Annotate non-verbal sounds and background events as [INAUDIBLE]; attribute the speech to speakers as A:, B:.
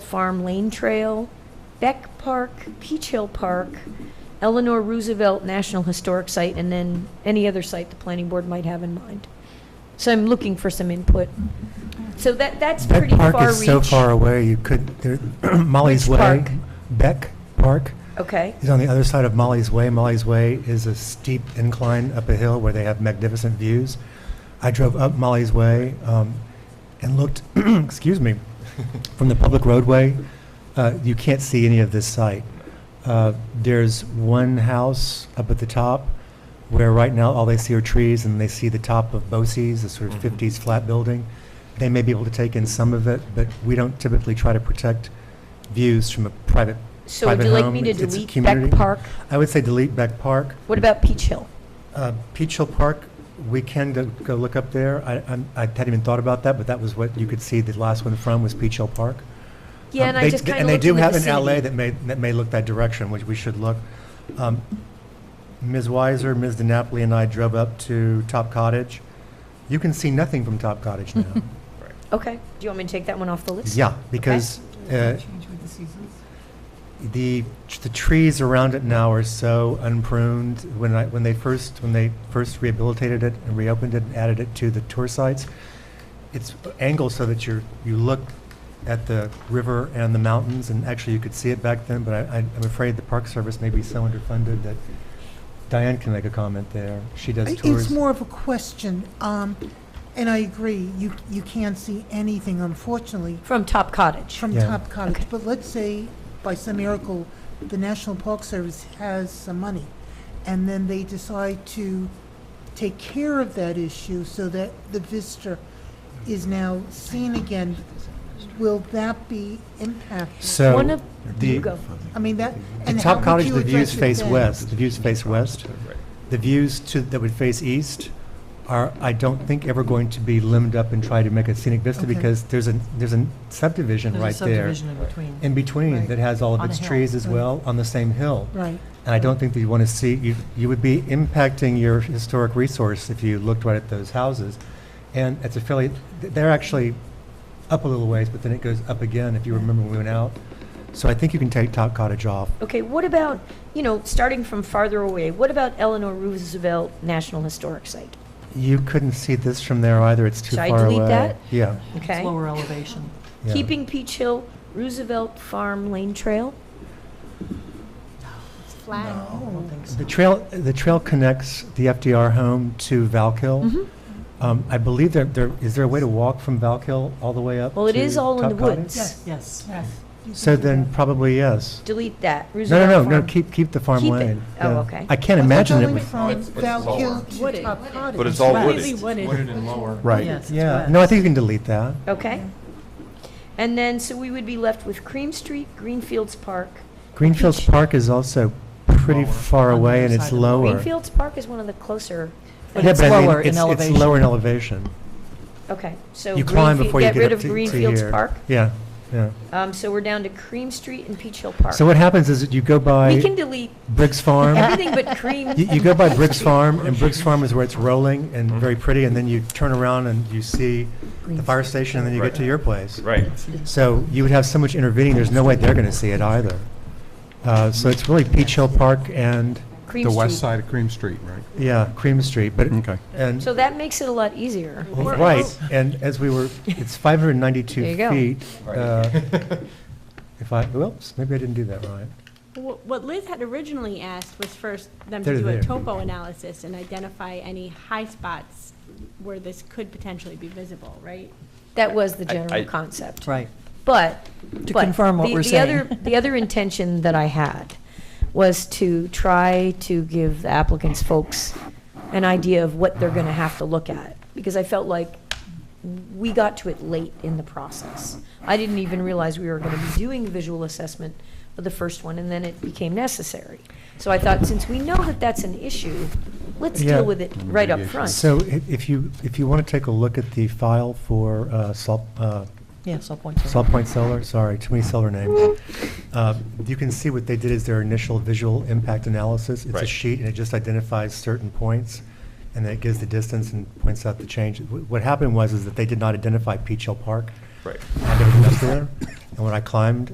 A: Farm Lane Trail, Beck Park, Peach Hill Park, Eleanor Roosevelt National Historic Site, and then any other site the planning board might have in mind. So I'm looking for some input. So that, that's
B: Beck
A: pretty far reach.
B: Park is so far away, you could, there- [CLEARS THROAT] Molly's
A: Which
B: Way.
A: park?
B: Beck Park
A: Okay,
B: is on the other side of Molly's Way. Molly's Way is a steep incline up a hill where they have magnificent views. I drove up Molly's Way um, and looked, [CLEARS THROAT] excuse me, from the public roadway. uh, You can't see any of this site. Uh, There's one house up at the top where right now all they see are trees and they see the top of Bosse's, a sort of
C: Mhm.
B: 50s flat building. They may be able to take in some of it, but we don't typically try to protect views from a private
A: so would you
B: Private
A: like me
B: home,
A: to
B: it's- it's a
A: delete Beck
B: community.
A: Park?
B: I would say delete Beck Park.
A: What about Peach Hill?
B: Uh, Peach Hill Park, we can go- go look up there. I I'm- I hadn't even thought about that, but that was what you could see the last one from was Peach Hill Park.
A: Yeah,
B: Um,
A: and I
B: they-
A: just kind of
B: And they
A: looked
B: do
A: in the
B: have an alley
A: vicinity.
B: that may, that may look that direction, which we should look. Um, Ms. Weiser, Ms. DiNapoli, and I drove up to Top Cottage. You can see nothing from Top Cottage
A: [LAUGHS]
B: now.
A: Okay, do you want me to take that one off the list?
B: Yeah, because uh, the, the trees around it now are so unpruned. When I, when they first, when they first rehabilitated it and reopened it and added it to the tour sites, it's angled so that you're, you look at the river and the mountains, and actually you could see it back then, but I, I'm afraid the Park Service may be so underfunded that Diane can make a comment there. She does tours.
D: It's more of a question, um, and I agree, you, you can't see anything, unfortunately,
A: From Top Cottage.
D: from
B: Yeah.
D: Top
A: Okay.
D: Cottage. But let's say, by some miracle, the National Park Service has some money, and then they decide to take care of that issue so that the visitor is now seen again. Will that be impacted?
B: So-
A: One of,
B: the-
A: you go.
D: I mean, that,
B: The
D: and how
B: Top
D: would
B: Cottage,
D: you
B: the views
D: address it
B: face
D: then?
B: west, the views face west. The views to, that would face east are, I don't think, ever going to be limbed up and try to make a scenic vista
D: Okay.
B: because there's a, there's a subdivision right there
E: There's a subdivision in between.
B: in between
D: Right.
B: that has all of
E: On a
B: its
E: hill.
B: trees as
D: Right.
B: well on the same hill.
D: Right,
B: And I don't think that you want to see, you, you would be impacting your historic resource if you looked right at those houses. And it's a fairly, they're actually up a little ways, but then it goes up again if you remember when we went out. So I think you can take Top Cottage off.
A: Okay, what about, you know, starting from farther away, what about Eleanor Roosevelt National Historic Site?
B: You couldn't see this from there either, it's too
A: Should I
B: far away.
A: delete that?
B: Yeah.
A: Okay.
E: It's lower elevation.
B: yeah.
A: Keeping Peach Hill, Roosevelt Farm Lane Trail?
E: I don't think so.
B: The trail, the trail connects the FDR home to Valkill.
A: Mhm.
B: Um, I believe there, there, is there a way to walk from Valkill all the way up
A: Well, it
B: to
A: is all in the
B: Top Cotton?
A: woods.
E: Yes.
D: yes. You
B: So
D: can do
B: then
D: that.
B: probably yes.
A: Delete that.
B: No,
A: Roosevelt
B: no, no, no,
A: Farm.
B: keep, keep the farm
A: Keep it.
B: lane.
A: Oh,
B: yeah.
A: okay.
B: I can't
D: But
B: imagine
D: they're
B: it
D: going
B: would,
D: From
F: But it's all
D: Valkill to
A: wooded.
D: Top Cottage.
C: But it's all
E: Right.
C: wooded.
E: Completely wooded.
C: Wooded and lower.
B: right,
E: Yes, it's
B: yeah.
E: west.
B: No, I think you can delete that.
A: Okay. And then, so we would be left with Cream Street, Greenfields Park.
B: Greenfields
A: Peach-
B: Park is also pretty
C: Lower.
B: far
E: On the
B: away
E: other
B: and
E: side
B: it's
E: of the-
B: lower.
A: Greenfields Park is one of the closer,
E: But
B: Yeah,
E: it's
B: I mean,
E: lower in
B: it's-
E: elevation.
B: It's lower in elevation.
A: okay, so.
B: You climb
A: Greenfield-
B: before you get up to to
A: Get
B: here.
A: rid of Greenfields Park.
B: Yeah, yeah.
A: Um, so we're down to Cream Street and Peach Hill Park.
B: So what happens is that you go by
A: We can delete
B: Briggs Farm.
A: everything but Cream.
B: You, you go by Briggs Farm, and Briggs Farm is where it's rolling and
C: Mm-hmm.
B: very pretty, and then you turn around and you see the fire station, and then you get to your place.
C: Right.
B: So you would have so much intervening, there's no way they're going to see it either. Uh, So it's really Peach Hill Park and,
A: Cream
G: The west
A: Street.
G: side of Cream Street, right?
B: yeah, Cream Street, but,
G: Okay.
B: and,
A: So that makes it a lot easier.
B: right, and as we were, it's 592
A: There you go.
B: feet.
C: Right.
B: uh, If I, whoops, maybe I didn't do that right.
H: Wh- What Liz had originally asked was first them
B: They're
H: to do
B: there.
H: a topo analysis and identify any high spots where this could potentially be visible, right?
A: That was the
C: I- I-
A: general concept.
E: Right.
A: But.
E: To
A: but
E: confirm what
A: the-
E: we're
A: the other-
E: saying.
A: The other intention that I had was to try to give the applicants folks an idea of what they're going to have to look at. Because I felt like we got to it late in the process. I didn't even realize we were going to be doing visual assessment for the first one, and then it became necessary. So I thought, since we know that that's an issue, let's
B: Yeah.
A: deal with it right up
G: Mitigation.
A: front.
B: So i- if you, if you want to take a look at the file for uh, Salt, uh,
E: Yeah, so point to.
B: Salt Point Solar, sorry, too many solar names. Uh, You can see what they did is their initial visual impact analysis. It's a
C: Right.
B: sheet, and it just identifies certain points, and then it gives the distance and points out the change. Wh- What happened was is that they did not identify Peach Hill Park.
C: Right.
B: And everything else there. And And when I climbed,